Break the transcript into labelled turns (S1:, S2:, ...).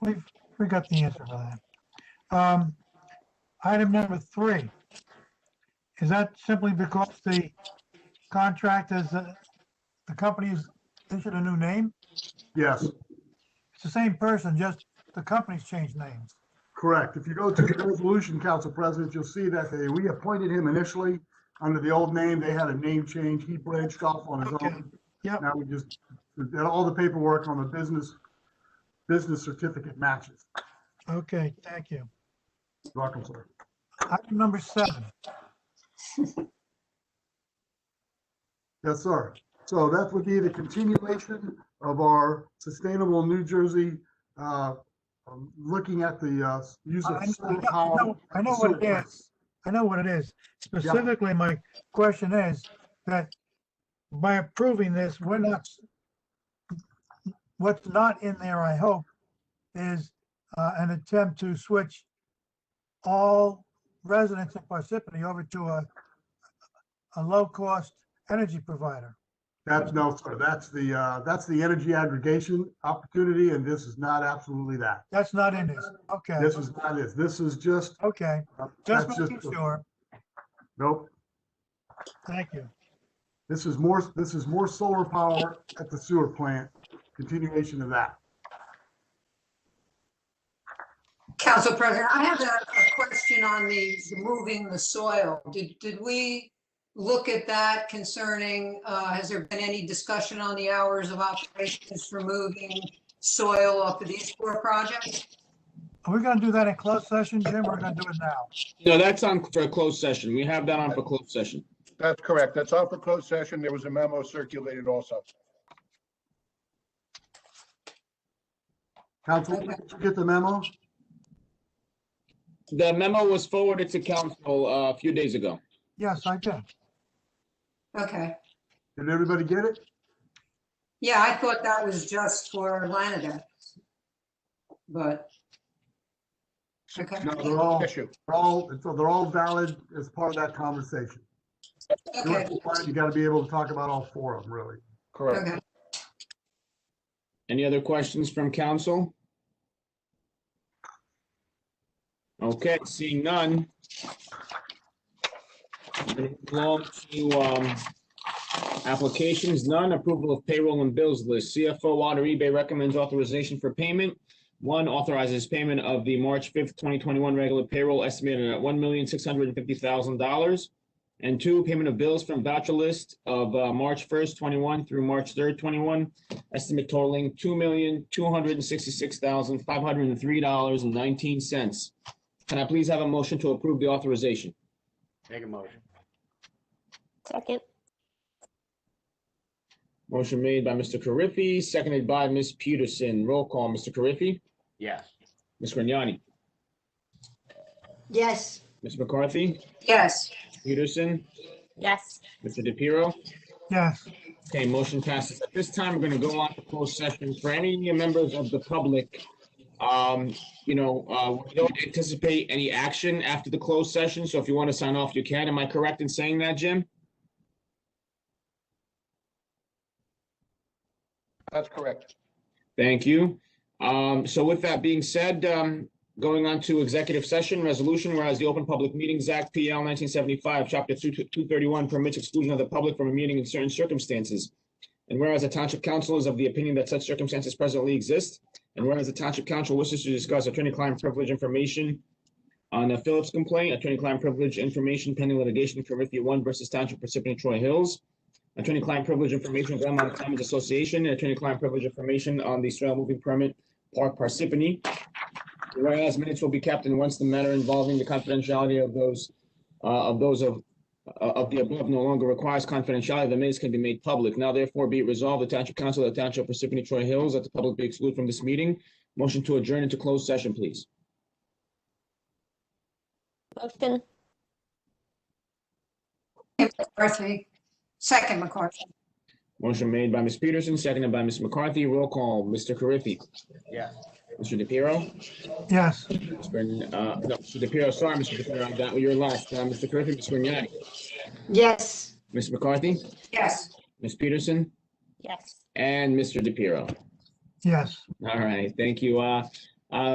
S1: We've, we got the answer for that. Um, Item number three. Is that simply because the contract is, uh, the company's issued a new name?
S2: Yes,
S1: It's the same person, just the company's changed names.
S2: correct. If you go to the resolution, Council President, you'll see that they reappointed him initially under the old name. They had a name change. He branched off on his own.
S1: Yep.
S2: Now we just, did all the paperwork on the business, business certificate matches.
S1: Okay, thank you.
S2: Welcome, sir.
S1: Item number seven.
S2: Yes, sir. So that would be the continuation of our Sustainable New Jersey, uh, um, looking at the uh, use
S1: I
S2: of
S1: I
S2: solar
S1: know- I
S2: power.
S1: know- I know what it
S2: solar.
S1: is. I know what it is. Specifically, my question is that by approving this, we're not, what's not in there, I hope, is uh, an attempt to switch all residents in Parsippany over to a, a low-cost energy provider.
S2: That's no, sir. That's the, uh, that's the energy aggregation opportunity, and this is not absolutely that.
S1: That's not in this. Okay,
S2: This is not it. This is just, uh,
S1: okay.
S2: that's
S1: Just
S2: just,
S1: making sure.
S2: nope.
S1: Thank you.
S2: This is more, this is more solar power at the sewer plant, continuation of that.
S3: Council President, I have a, a question on the moving the soil. Did, did we look at that concerning, uh, has there been any discussion on the hours of operations for moving soil off of these four projects?
S1: Are we gonna do that in closed session, Jim? We're gonna do it now.
S4: No, that's on for a closed session. We have that on for closed session.
S5: That's correct. That's off the closed session. There was a memo circulated also.
S2: Council, did you get the memo?
S4: The memo was forwarded to council uh, a few days ago.
S1: Yes, I did.
S3: Okay,
S2: Did everybody get it?
S3: yeah, I thought that was just for Lanada. But, okay,
S2: No, they're all,
S5: Issue.
S2: they're all, so they're all valid as part of that conversation. You
S3: okay,
S2: gotta be able to talk about all four of them, really.
S5: Correct.
S3: okay.
S4: Any other questions from council? Okay, seeing none. Long to um, applications, none. Approval of payroll and bills list. CFO Water eBay recommends authorization for payment. One authorizes payment of the March 5th, 2021 regular payroll estimated at $1,650,000. And two, payment of bills from voucher list of uh, March 1st, 21 through March 3rd, 21 estimate totaling two million, two hundred and sixty-six thousand, five hundred and three dollars and nineteen cents. Can I please have a motion to approve the authorization?
S6: Make a motion.
S7: Second,
S4: Motion made by Mr. Carriffy, seconded by Ms. Peterson. Roll call, Mr. Carriffy,
S6: Yes.
S4: Ms. Grignani,
S3: Yes.
S4: Ms. McCarthy,
S3: Yes,
S4: Peterson,
S7: yes.
S4: Mr. DePiero.
S1: Yes,
S4: Okay, motion passes. At this time, we're going to go on to closed session. For any members of the public, um, you know, uh, we don't anticipate any action after the closed session, so if you want to sign off, you can. Am I correct in saying that, Jim?
S5: That's correct.
S4: Thank you. Um, so with that being said, um, going on to executive session resolution, whereas the Open Public Meetings Act, PL nineteen seventy-five, chapter two, two thirty-one permits exclusion of the public from a meeting in certain circumstances. And whereas the Township Council is of the opinion that such circumstances presently exist, and whereas the Township Council wishes to discuss attorney-client privilege information on the Phillips complaint, attorney-client privilege information pending litigation for Murphy One versus Township Participant Troy Hills, attorney-client privilege information, Glenmont Commons Association, and attorney-client privilege information on the soil moving permit, Park Parsippany. Whereas minutes will be kept and once the matter involving the confidentiality of those, uh, of those of, uh, of the above no longer requires confidentiality, the minutes can be made public. Now therefore be it resolved, the Township Council of the Township of Parsippany Troy Hills, that the public be excluded from this meeting. Motion to adjourn into closed session, please.
S7: Motion,
S3: McCarthy, second McCarthy,
S4: Motion made by Ms. Peterson, seconded by Ms. McCarthy. Roll call, Mr. Carriffy.
S6: Yes.
S4: Mr. DePiero.
S1: yes.
S4: Ms. Bern, uh, no, Mr. DePiero, sorry, Mr. DePiero, I got your last, uh, Mr. Carriffy, Ms. Grignani,
S3: yes,
S4: Ms. McCarthy,
S3: yes.
S4: Ms. Peterson,
S7: yes.
S4: and Mr. DePiero.
S1: Yes.
S4: All right, thank you. Uh,